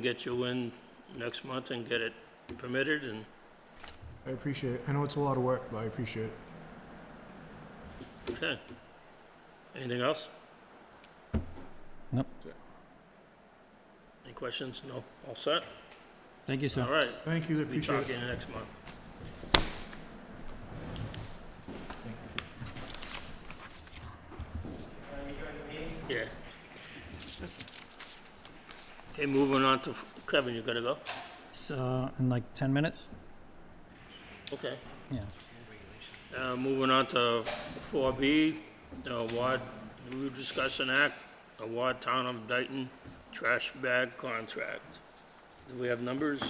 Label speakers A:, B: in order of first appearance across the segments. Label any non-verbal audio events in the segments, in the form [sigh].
A: get you in next month and get it permitted and,
B: I appreciate it. I know it's a lot of work, but I appreciate it.
A: okay. Anything else?
C: Nope.
A: Any questions? No? All set?
C: Thank you,
A: All
C: sir.
A: right.
B: Thank you, I
A: Be
B: appreciate
A: talking
B: it.
A: next month. Yeah. Okay, moving on to, Kevin, you gotta go?
C: So, uh, in like 10 minutes?
A: Okay.
C: Yeah.
A: Uh, moving on to four B, award, we were discussing act, award town of Dayton trash bag contract. Do we have numbers?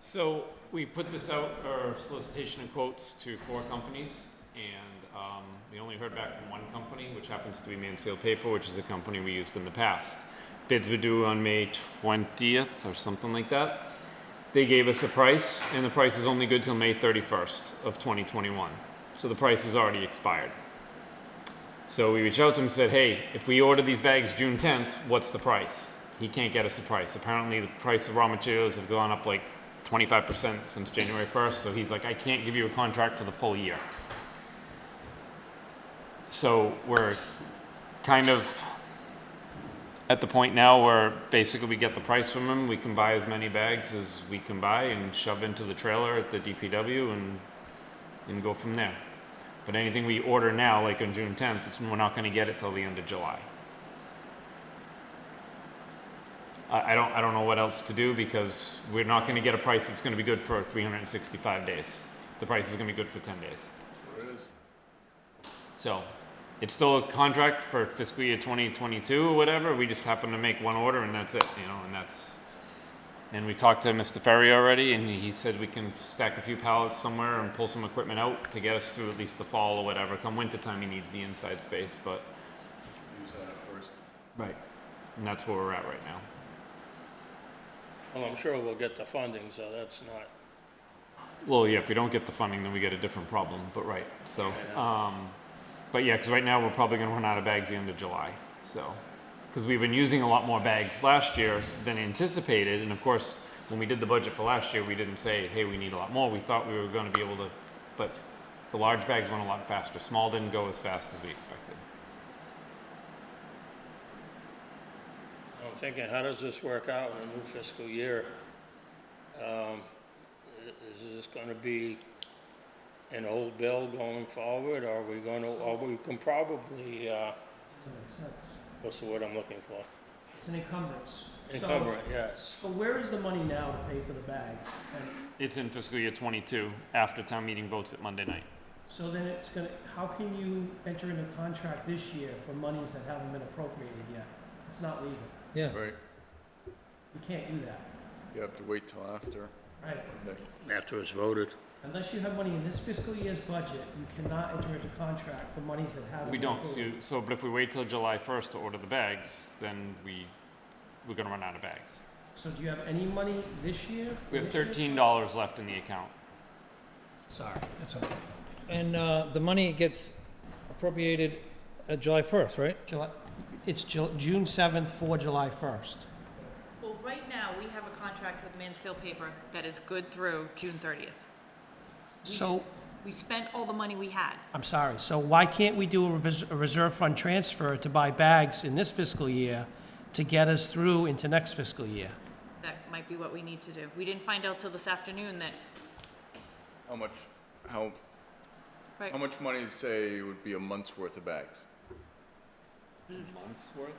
D: So we put this out, or solicitation and quotes to four companies, and um, we only heard back from one company, which happens to be Mansfield Paper, which is a company we used in the past. Bids were due on May 20th or something like that. They gave us a price, and the price is only good till May 31st of 2021. So the price is already expired. So we reached out to him and said, hey, if we order these bags June 10th, what's the price? He can't get us a price. Apparently, the price of raw materials have gone up like 25% since January 1st. So he's like, I can't give you a contract for the full year. So we're kind of at the point now where basically we get the price from him. We can buy as many bags as we can buy and shove into the trailer at the DPW and, and go from there. But anything we order now, like on June tenth, it's, we're not gonna get it till the end of July. I, I don't, I don't know what else to do because we're not gonna get a price that's gonna be good for three hundred and sixty-five days. The price is gonna be good for ten days. So, it's still a contract for fiscal year twenty twenty-two or whatever, we just happen to make one order and that's it, you know, and that's. And we talked to Mr. Ferry already, and he said we can stack a few pallets somewhere and pull some equipment out to get us through at least the fall or whatever. Come wintertime, he needs the inside space, but. Use that at first. Right, and that's where we're at right now.
A: Well, I'm sure we'll get the funding, so that's not,
D: Well, yeah, if we don't get the funding, then we get a different problem, but right, so, um, but yeah, because right now we're probably gonna run out of bags the end of July, so. Because we've been using a lot more bags last year than anticipated, and of course, when we did the budget for last year, we didn't say, hey, we need a lot more, we thought we were gonna be able to, but the large bags went a lot faster, small didn't go as fast as we expected.
A: I'm thinking, how does this work out in a new fiscal year? Um, i- is this gonna be an old bill going forward, or are we gonna, or we can probably, uh,
E: Doesn't make sense.
A: what's the word I'm looking for?
E: It's an encumbrance. So-
A: Encumber it, yes.
E: So where is the money now to pay for the bags? And
D: It's in fiscal year twenty-two, after town meeting votes at Monday night.
E: so then it's gonna, how can you enter into contract this year for monies that haven't been appropriated yet? It's not legal.
C: Yeah.
F: Right,
E: You can't do that,
F: you have to wait till after.
E: right?
A: After it's voted.
E: Unless you have money in this fiscal year's budget, you cannot enter into contract for monies that haven't
D: We
E: been
D: don't,
E: approved.
D: so, so, but if we wait till July first to order the bags, then we, we're gonna run out of bags.
E: So do you have any money this year?
D: We have
E: This year?
D: thirteen dollars left in the account.
C: Sorry, that's okay. And uh, the money gets appropriated at July 1st, right?
E: July, it's Ju- June seventh for July first.
G: Well, right now, we have a contract with Mansfield Paper that is good through June thirtieth.
E: So-
G: We spent all the money we had.
E: I'm sorry, so why can't we do a revis- a reserve fund transfer to buy bags in this fiscal year to get us through into next fiscal year?
G: That might be what we need to do. We didn't find out till this afternoon that,
F: How much, how, how
G: right,
F: much money, say, would be a month's worth of bags? Month's worth?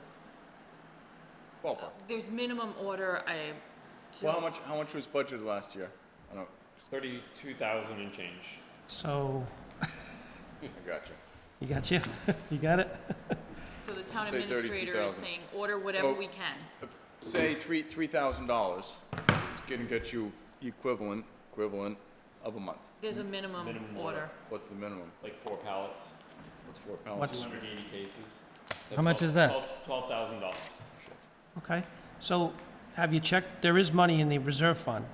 F: Uh, Ballpark.
G: there's minimum order, I,
F: Well, how much, how much was budgeted last year? I don't,
D: Thirty-two thousand and change.
E: So,
F: I got you.
E: you got you, [laughs] you got it?
G: so the town
F: Say 32,000.
G: administrator is saying, order whatever
F: So-
G: we can.
F: Say three, three thousand dollars is gonna get you equivalent, equivalent of a month.
G: There's a minimum order.
F: What's the minimum?
D: Like four pallets,
F: What's four pounds?
E: What's-
D: two hundred and eighty cases.
C: How much is that?
D: Twelve thousand dollars.
E: Okay, so have you checked, there is money in the reserve fund?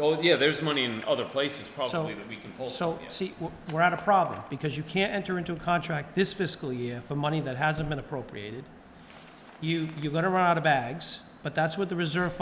D: Oh, yeah, there's money in other places
E: So-
D: probably that we can pull from,
E: So,
D: yes.
E: see, w- we're at a problem, because you can't enter into a contract this fiscal year for money that hasn't been appropriated. You, you're gonna run out of bags, but that's what the reserve fund